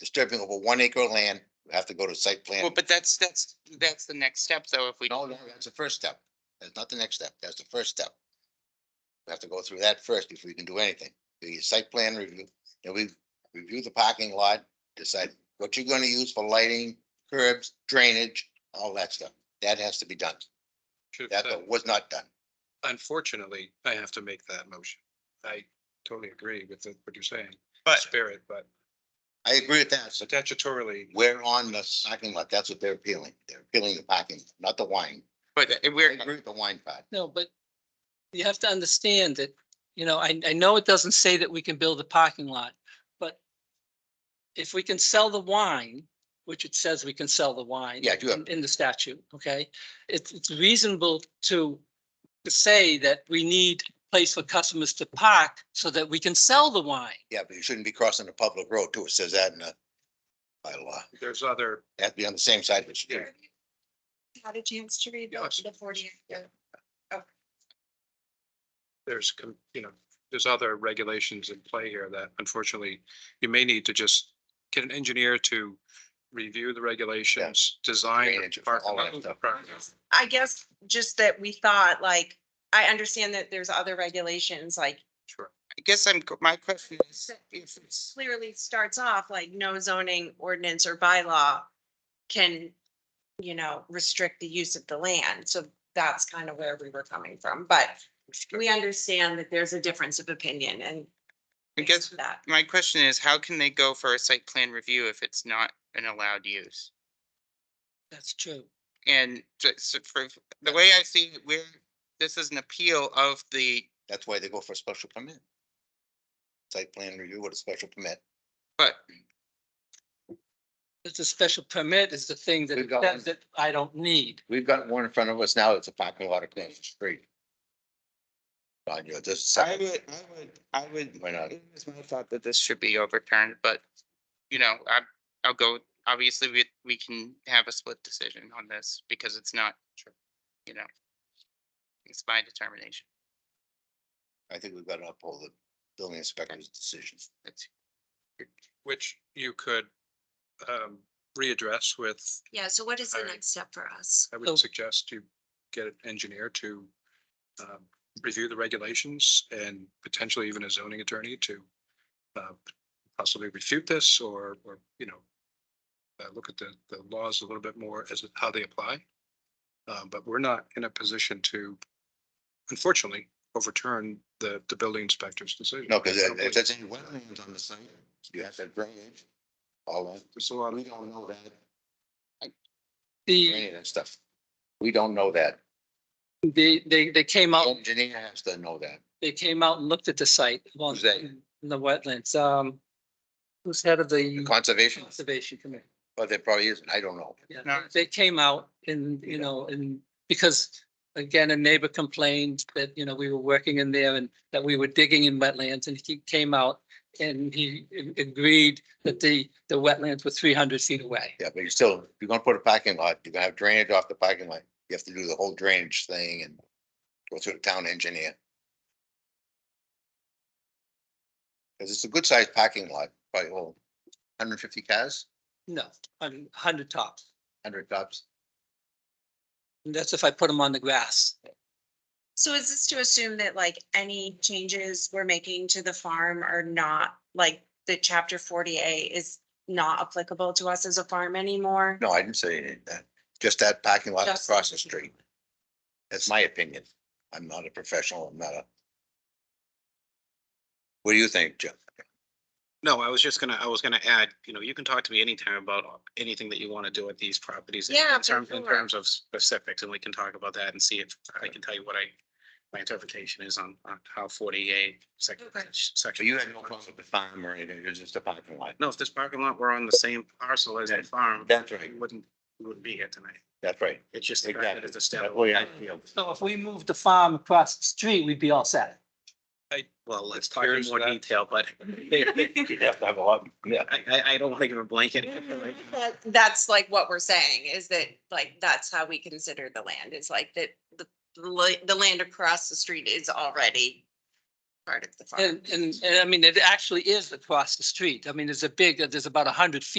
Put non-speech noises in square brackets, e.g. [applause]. disturbing over one acre of land, you have to go to site plan. Well, but that's, that's, that's the next step, though, if we, No, no, that's the first step. That's not the next step. That's the first step. We have to go through that first before you can do anything. Do your site plan review, then we review the parking lot, decide what you're gonna use for lighting, curbs, drainage, all that stuff. That has to be done. Should- That that- was not done. Unfortunately, I have to make that motion. I totally agree with the- what you're saying, but, spirit, but I agree with that. So statutorily, we're on the parking lot. That's what they're appealing. They're appealing the parking, not the wine. but I we're, agree with the wine part. No, but you have to understand that, you know, I, I know it doesn't say that we can build a parking lot, but if we can sell the wine, which it says we can sell the wine. Yeah, I do have- in- In the statute, okay? It's, it's reasonable to, to say that we need a place for customers to park so that we can sell the wine. Yeah, but you shouldn't be crossing a public road too. It says that in the bylaw. there's other, You have to be on the same side of the street. yeah, Had a chance to read Yes. the the forty. acre. there's, com- you know, there's other regulations in play here that unfortunately, you may need to just get an engineer to review the regulations, design. Drainage, the parking all that lot- stuff. parking lot. I guess just that we thought like, I understand that there's other regulations, like Sure. I guess I'm, my question is, if it's, clearly starts off like no zoning ordinance or bylaw can, you know, restrict the use of the land. So that's kind of where we were coming from, but we understand that there's a difference of opinion and I guess, that. my question is, how can they go for a site plan review if it's not an allowed use? That's true. And just for, the way I see it, we're, this is an appeal of the, That's why they go for a special permit. Site plan review with a special permit. but, It's a special permit is the thing We've that, got that one. that I don't need. We've got one in front of us now that's a parking lot across the street. On your, this I side, would, I would, I would. Why not? It was my thought that this should be overturned, but, you know, I, I'll go, obviously, we, we can have a split decision on this because it's not, you know. It's my determination. I think we've got to uphold the building inspector's decision. That's- Which you could um, readdress with, Yeah, so what is the All right. next step for us? I So- would suggest you get an engineer to um, review the regulations and potentially even a zoning attorney to uh, possibly refute this or, or, you know, uh, look at the, the laws a little bit more as to how they apply. Uh, But we're not in a position to, unfortunately, overturn the, the building inspector's decision. No, because if there's any wetlands on the site, you have to drainage, all that. There's a lot We don't know that, The, any of that stuff. We don't know that. the, they, they came out. Engineer has to know that. they came out and looked at the site. well, Who's they? In the wetlands, um, who's head of The the Conservation, conservation committee? but there probably isn't. I don't know. Yeah, No. They came out and, you know, and because again, a neighbor complained that, you know, we were working in there and that we were digging in wetlands and he came out and he a- agreed that the, the wetlands were three hundred feet away. Yeah, but you're still, if you're gonna put a parking lot, you're gonna have drainage off the parking lot. You have to do the whole drainage thing and go through the town engineer. Cause it's a good sized parking lot, probably well, hundred and fifty cars, No, hundred, hundred tops. hundred tops. And that's if I put them on the grass. So is this to assume that like any changes we're making to the farm are not, like the chapter forty A is not applicable to us as a farm anymore? No, I didn't say any of that. Just that parking lot Just- across the street. That's my opinion. I'm not a professional. I'm not a. What do you think, Jim? No, I was just gonna, I was gonna add, you know, you can talk to me anytime about uh, anything that you want to do at these properties. in- Yeah, In terms, for in sure. terms of specifics, and we can talk about that and see if I can tell you what I, my interpretation is on, on how forty-eight section. Okay. So section- you had no problem with the farm or anything? It was just a parking lot? No, if this parking lot were on the same parcel as the farm, That's we wouldn't, we wouldn't be here tonight. That's right. It's just the fact that Exactly. it's a That standalone. way I feel. So if we moved the farm across the street, we'd be all set. Well, let's talk in Here's more that. detail, [laughs] but You'd have to have a lot, yeah. I, I, I don't want to give a blanket. [laughs] That- That's like what we're saying is that like, that's how we consider the land is like that the, the la- the land across the street is already part of the farm. And, and, and I mean, it actually is across the street. I mean, there's a big, there's about a hundred feet